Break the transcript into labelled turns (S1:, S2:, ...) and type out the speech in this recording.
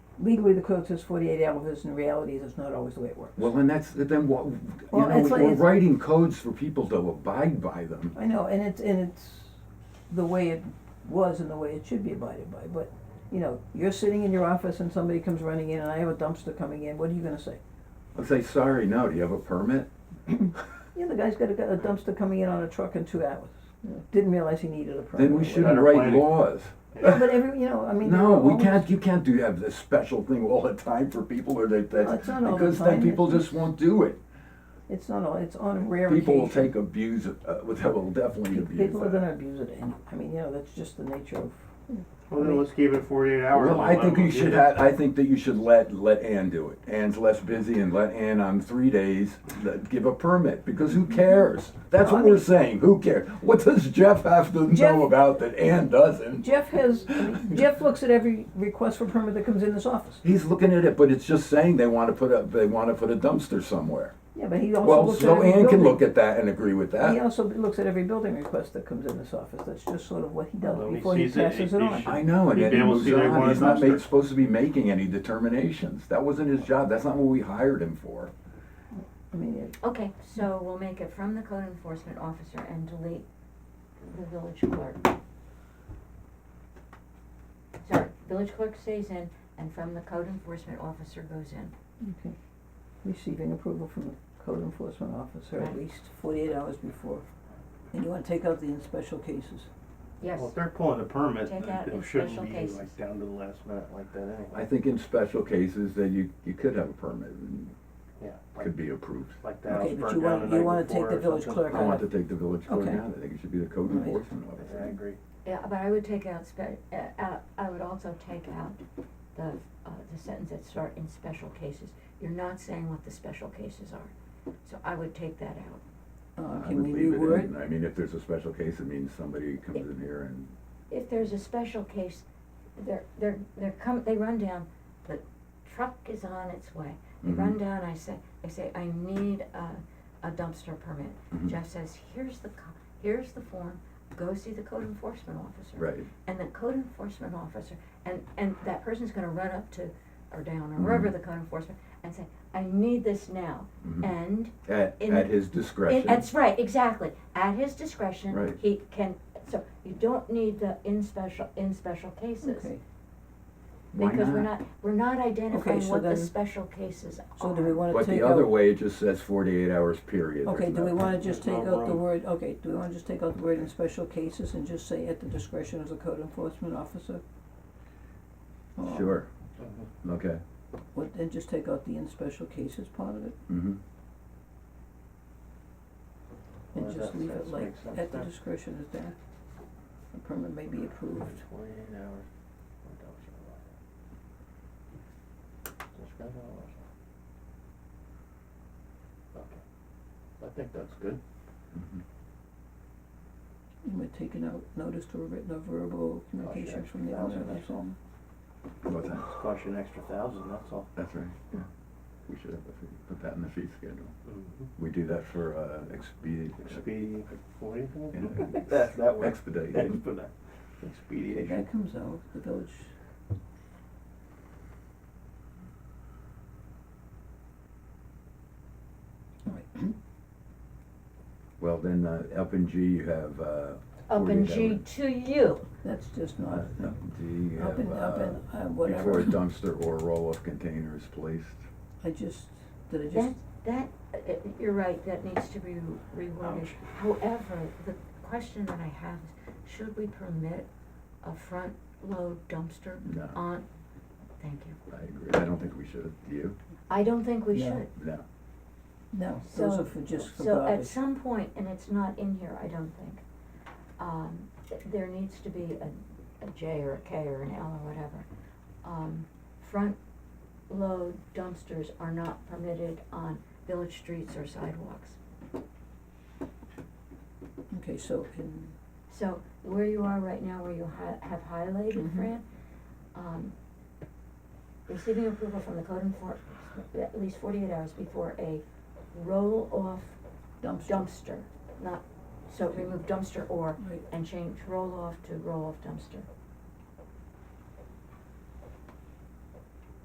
S1: legally the code says forty-eight hours, in reality, that's not always the way it works.
S2: Well, and that's, then what, you
S1: Well,
S2: know,
S1: it's like-
S2: we're
S1: it's-
S2: writing codes for people to abide by them.
S1: I know, and it's, and it's the way it was and the way it should be abided by, but, you know, you're sitting in your office and somebody comes running in and I have a dumpster coming in, what are you gonna say?
S2: I'll say, sorry, no, do you have a permit?
S1: Yeah, the guy's got a, got a dumpster coming in on a truck in two hours, didn't realize he needed a permit.
S2: Then we
S1: or
S2: shouldn't
S3: without
S2: write
S3: planning.
S2: laws.
S1: whatever. But every, you know, I mean.
S2: No,
S1: they're
S2: we
S1: always-
S2: can't, you can't do, have this special thing all the time for people or that,
S1: No,
S2: that,
S1: it's not all the
S2: because
S1: time,
S2: then people
S1: it's-
S2: just won't do it.
S1: It's not all, it's on rare occasion.
S2: People will take abuse, of- uh, will will definitely abuse that.
S1: People are gonna abuse it, and, I mean, you know, that's just the nature of,
S3: Well, then let's keep it forty-eight hours.
S2: Well,
S3: and
S2: I
S3: let
S2: think
S3: them
S2: you
S3: do
S2: should
S3: it.
S2: ha I think that you should let, let Ann do it. Ann's less busy and let Ann on three days, let- give a permit, because who cares? That's
S1: Well, I
S2: what we're
S1: mean-
S2: saying, who cares? What does Jeff have to
S1: Jeff-
S2: know about that Ann doesn't?
S1: Jeff has, I mean, Jeff looks at every request for permit that comes in this office.
S2: He's looking at it, but it's just saying they wanna put a, they wanna put a dumpster somewhere.
S1: Yeah, but he also
S2: Well,
S1: looks at
S2: so
S1: every
S2: Ann can look
S1: building,
S2: at that and agree with
S1: he
S2: that.
S1: also looks at every building request that comes in this office, that's just sort of what he does
S3: Well, he
S1: before he
S3: sees it, he-
S1: passes it
S3: he
S1: on.
S3: should-
S2: I know, and
S3: He'd
S2: then
S3: be
S2: he
S3: able to
S2: moves
S3: see they
S2: on,
S3: want a
S2: he's not
S3: dumpster.
S2: made, supposed to be making any determinations. That wasn't his job, that's not what we hired him for.
S1: I mean, it-
S4: Okay, so we'll make it from the code enforcement officer and delete the village clerk. Sorry, village clerk stays in and from the code enforcement officer goes in.
S1: okay. Receiving approval from the code enforcement officer at
S4: Right.
S1: least forty-eight hours before. And you wanna take out the in special cases.
S4: Yes,
S3: Well, if they're pulling a permit,
S4: Take
S3: then
S4: out
S3: it
S4: in
S3: shouldn't
S4: special
S3: be
S4: cases.
S3: like down to the last minute like that
S2: I
S3: anyway.
S2: think in special cases that you, you could have a permit and
S3: Yeah, like,
S2: could be approved.
S3: like
S1: Okay,
S3: that house
S1: but you
S3: burned down the
S1: wanna,
S3: night
S1: you wanna take
S3: before
S1: the
S3: or
S1: village
S3: something.
S1: clerk
S2: I want
S1: out,
S2: to
S1: of-
S2: take the village code
S1: Okay.
S2: down, I think it should be the code
S1: All right.
S2: enforcement
S3: Yeah, I
S2: officer.
S3: agree.
S4: yeah, but I would take out spe- uh, out, I would also take out the, uh, the sentence that start in special cases. You're not saying what the special cases are, so I would take that out.
S1: uh,
S2: I
S1: can
S2: would
S1: we
S2: leave it
S1: reword?
S2: in. I mean, if there's a special case, it means somebody comes in here and,
S4: if there's a special case, they're, they're, they're come, they run down, the truck is on its way. They run
S2: Mhm.
S1: Mm-hmm.
S4: down, I say, I say, I need a, a dumpster permit.
S1: Mm-hmm.
S2: Mhm.
S4: Jeff says, here's the, co- here's the form, go see the code enforcement officer.
S2: right,
S4: And the code enforcement officer, and, and that person's gonna run up to, or down, or
S1: Mm-hmm.
S4: wherever
S2: Mhm.
S4: the code enforcement, and say, I need this now.
S2: Mhm.
S1: Mm-hmm.
S4: And
S2: at,
S4: In-
S2: at his
S4: it-
S2: discretion.
S4: That's right, exactly. At his discretion.
S2: Right.
S4: He can, so you don't need the in special, in special cases.
S1: Okay,
S2: Why
S4: Because we're not, we're not identifying
S1: so
S4: what the
S1: then-
S4: special cases are.
S1: so do we wanna
S2: But
S1: take out?
S2: the other way, it just says forty-eight hours period.
S1: Okay,
S2: There's
S1: do we
S2: no-
S1: wanna just take
S3: There's no
S1: out the
S3: room.
S1: word, okay, do we wanna just take out the word in special cases and just say at the discretion of the code enforcement officer? Or-
S2: Sure,
S3: Mhm.
S2: okay,
S1: What, and just take out the in special cases part of it,
S2: mm-hmm,
S1: and
S3: Well,
S1: just
S3: that-
S1: leave
S3: that
S1: it like,
S3: makes sense,
S1: at the
S3: yeah.
S1: discretion of that, the permit may be approved.
S3: Twenty-eight hours. What the hell's your life? Just grab it all off. Okay, I think that's good.
S2: mm-hmm.
S1: And we're taking out notice to a written or verbal communication
S3: extra
S1: from the owner,
S3: thousand,
S1: that's
S3: that's
S1: all.
S3: all.
S2: what's that?
S3: It's cost you an extra thousand, that's all.
S2: That's right, yeah, we should have, a fee- put that in the fee schedule.
S3: Mhm.
S2: We do that for, uh, expedient.
S3: Expedi, what do you call
S2: Yeah.
S3: it? That, that word.
S2: Expedite.
S3: Expedite.
S1: If
S3: Expediation.
S1: that comes out, the village,
S2: Well, then, uh, up in G, you have, uh,
S4: Up in
S2: 48
S4: G
S2: hours.
S4: to you.
S1: that's just
S2: Uh,
S1: not,
S2: Up in G, you have, uh.
S1: up and, up and, uh,
S2: Before a
S1: whatever,
S2: dumpster or roll-off container is placed.
S1: I just, did I just?
S4: That, that, uh, uh, you're right, that needs to be reworded.
S3: Ouch.
S4: However, the question that I have is, should we permit a front load dumpster
S2: No.
S4: on? Thank you.
S2: I agree. I don't think we should. Do you?
S4: I don't think we
S1: No.
S4: should.
S2: No.
S1: No, those
S4: So-
S1: are for just for
S4: So at
S1: garbage.
S4: some point, and it's not in here, I don't think, um, th- there needs to be a, a J or a K or an L or whatever. Um, front load dumpsters are not permitted on village streets or sidewalks.
S1: Okay, so in,
S4: So where you are right now, where you hi- have highlighted,
S1: Mhm.
S4: Fran, um, receiving approval from the code enforcement at least forty-eight hours before a roll-off
S1: dumpster.
S4: dumpster, not, so remove dumpster or
S1: Right.
S4: and change roll-off to roll-off dumpster.